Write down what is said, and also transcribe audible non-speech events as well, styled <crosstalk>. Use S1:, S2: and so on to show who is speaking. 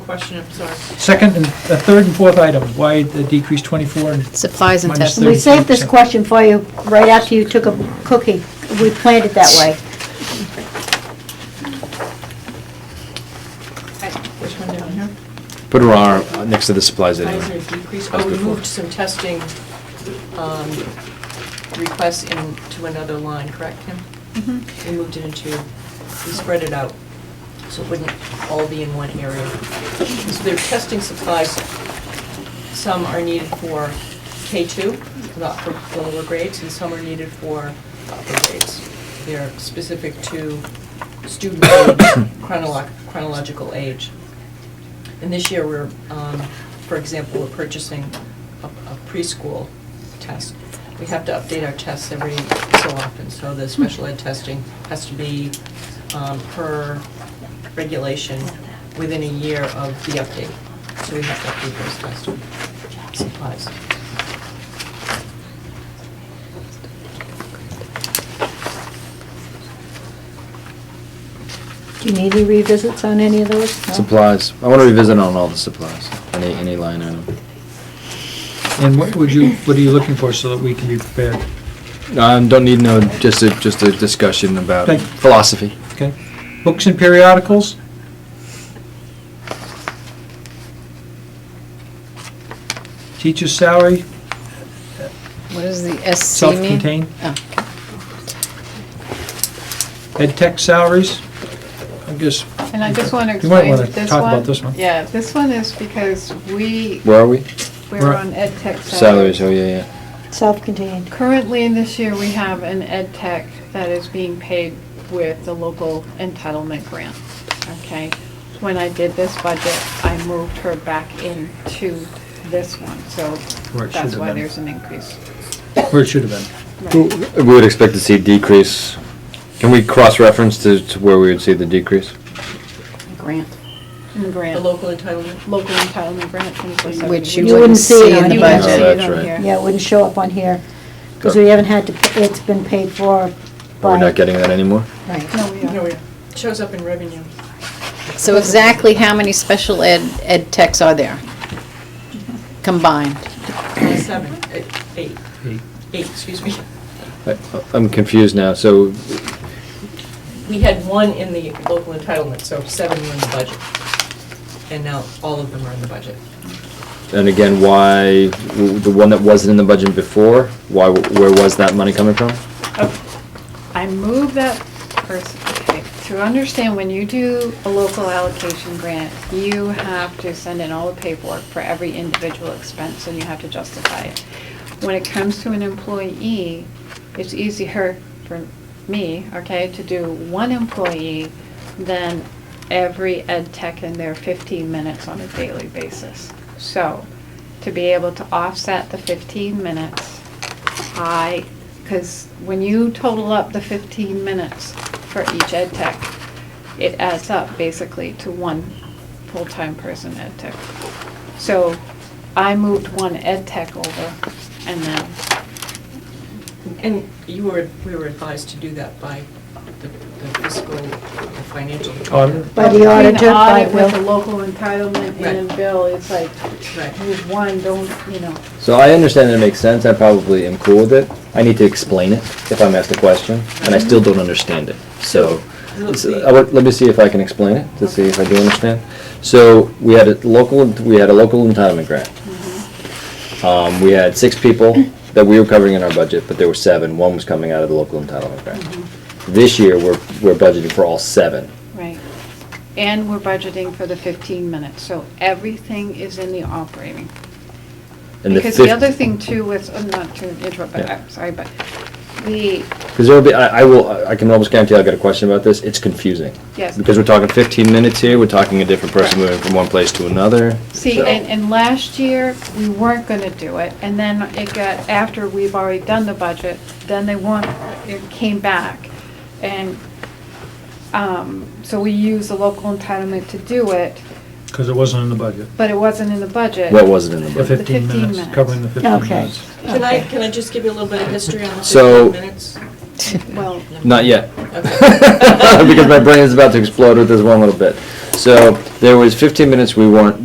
S1: question, I'm sorry.
S2: Second and, uh, third and fourth item, why the decrease 24 and
S3: Supplies and
S2: Minus
S3: tests.
S2: thirty.
S4: We saved this question for you right after you took a cookie. We planned it that way.
S1: Which one down here?
S5: Put her arm uh, next to the supplies
S1: Why
S5: anyway.
S1: is there a decrease?
S5: As
S1: Oh, we
S5: before.
S1: moved some testing um, requests into another line, correct, Kim? We moved it into, we spread it out, so it wouldn't all be in one area. So their testing supplies, some are needed for K-2, not for the lower grades, and some are needed for upper grades. They're specific to student <coughs> age, chronolo- chronological age. And this year, we're, um, for example, we're purchasing a a preschool test. We have to update our tests every so often, so the special ed testing has to be um, per regulation within a year of the update. So we have to update those test supplies.
S4: Do you need any revisits on any of those? No?
S5: Supplies. I want to revisit on all the supplies, any, any line item.
S2: And what would you, what are you looking for so that we can be prepared?
S5: Um, don't need no, just a, just a discussion about
S2: Okay.
S5: philosophy.
S2: Okay? Books and periodicals? Teacher's salary,
S3: What does the SC mean?
S2: self-contained?
S3: Oh,
S2: Ed tech salaries? I guess,
S6: And I just want to
S2: You might
S6: explain
S2: wanna
S6: this one.
S2: talk about this one.
S6: Yeah, this one is because we,
S5: Where are we?
S6: we're
S2: Right.
S6: on ed tech salaries.
S5: Salaries, oh, yeah, yeah.
S4: Self-contained.
S6: Currently, in this year, we have an ed tech that is being paid with the local entitlement grant, okay? When I did this budget, I moved her back into this one, so
S2: Where it should
S6: that's
S2: have
S6: why
S2: been.
S6: there's an increase.
S2: where it should have been.
S5: We would expect to see decrease. Can we cross-reference to, to where we would see the decrease?
S6: Grant. In the grant.
S1: The local entitlement,
S6: Local entitlement grant, twenty-four seventy.
S3: Which you
S4: You wouldn't
S3: wouldn't
S4: see
S3: see
S4: it
S3: in
S4: on
S3: the
S4: the
S5: budget.
S3: budget.
S5: No, that's
S6: on
S5: right.
S6: here.
S4: Yeah, it wouldn't show up on here, because we haven't had to, it's been paid for
S5: We're
S4: by,
S5: not getting that anymore?
S3: Right.
S6: No, we
S1: no,
S6: are.
S1: it shows up in revenue.
S3: So exactly how many special ed, ed techs are there? Combined?
S1: Seven, eh, eight,
S2: Eight.
S1: eight, excuse me.
S5: I- I'm confused now, so
S1: We had one in the local entitlement, so seven were in the budget. And now all of them are in the budget.
S5: And again, why, w- the one that wasn't in the budget before, why, where was that money coming from?
S6: I move that person, okay, to understand when you do a local allocation grant, you have to send in all the paperwork for every individual expense and you have to justify it. When it comes to an employee, it's easier for me, okay, to do one employee than every ed tech in their fifteen minutes on a daily basis. So, to be able to offset the fifteen minutes, I, because when you total up the 15 minutes for each ed tech, it adds up basically to one full-time person ed tech. So I moved one ed tech over and then,
S1: And you were, we were advised to do that by the the fiscal, the financial department.
S4: by the auditor,
S6: Between
S4: by
S6: audit with the
S4: Bill.
S6: local entitlement and
S1: Right.
S6: then bill, it's like,
S1: Right.
S6: move one, don't, you know.
S5: So I understand that it makes sense, I probably am cool with it. I need to explain it if I'm asked a question, and I still don't understand it. So, so I would- let me see if I can explain it, to see if I do understand. So, we had a local, we had a local entitlement grant.
S6: Mm-hmm.
S5: Um, we had six people that we were covering in our budget, but there were seven, one was coming out of the local entitlement grant.
S6: Mm-hmm.
S5: This year, we're, we're budgeting for all seven.
S6: Right. And we're budgeting for the 15 minutes, so everything is in the operating.
S5: And
S6: Because the
S5: fif-
S6: other thing too was, uh, not to interrupt, but
S5: Yeah.
S6: I'm sorry, but the,
S5: Because there'll be, I, I will, I can almost guarantee I'll get a question about this, it's confusing.
S6: Yes.
S5: Because we're talking fifteen minutes here, we're talking a different person moving from one place to another.
S6: see,
S5: so-
S6: and, and last year, we weren't gonna do it, and then it got, after we've already done the budget, then they want, it came back. And, um, so we used the local entitlement to do it,
S2: Because it wasn't in the budget.
S6: but it wasn't in the budget.
S5: What was it in the
S2: The
S5: budget?
S2: 15
S6: 15
S2: minutes,
S6: minutes.
S2: covering the 15
S4: Okay.
S2: minutes.
S1: Can I, can I just give you a little bit of history on the
S5: So-
S1: 15 minutes?
S6: Well,
S5: Not yet,
S1: Okay.
S5: <laughs> because my brain is about to explode with this one little bit. So there was 15 minutes we weren't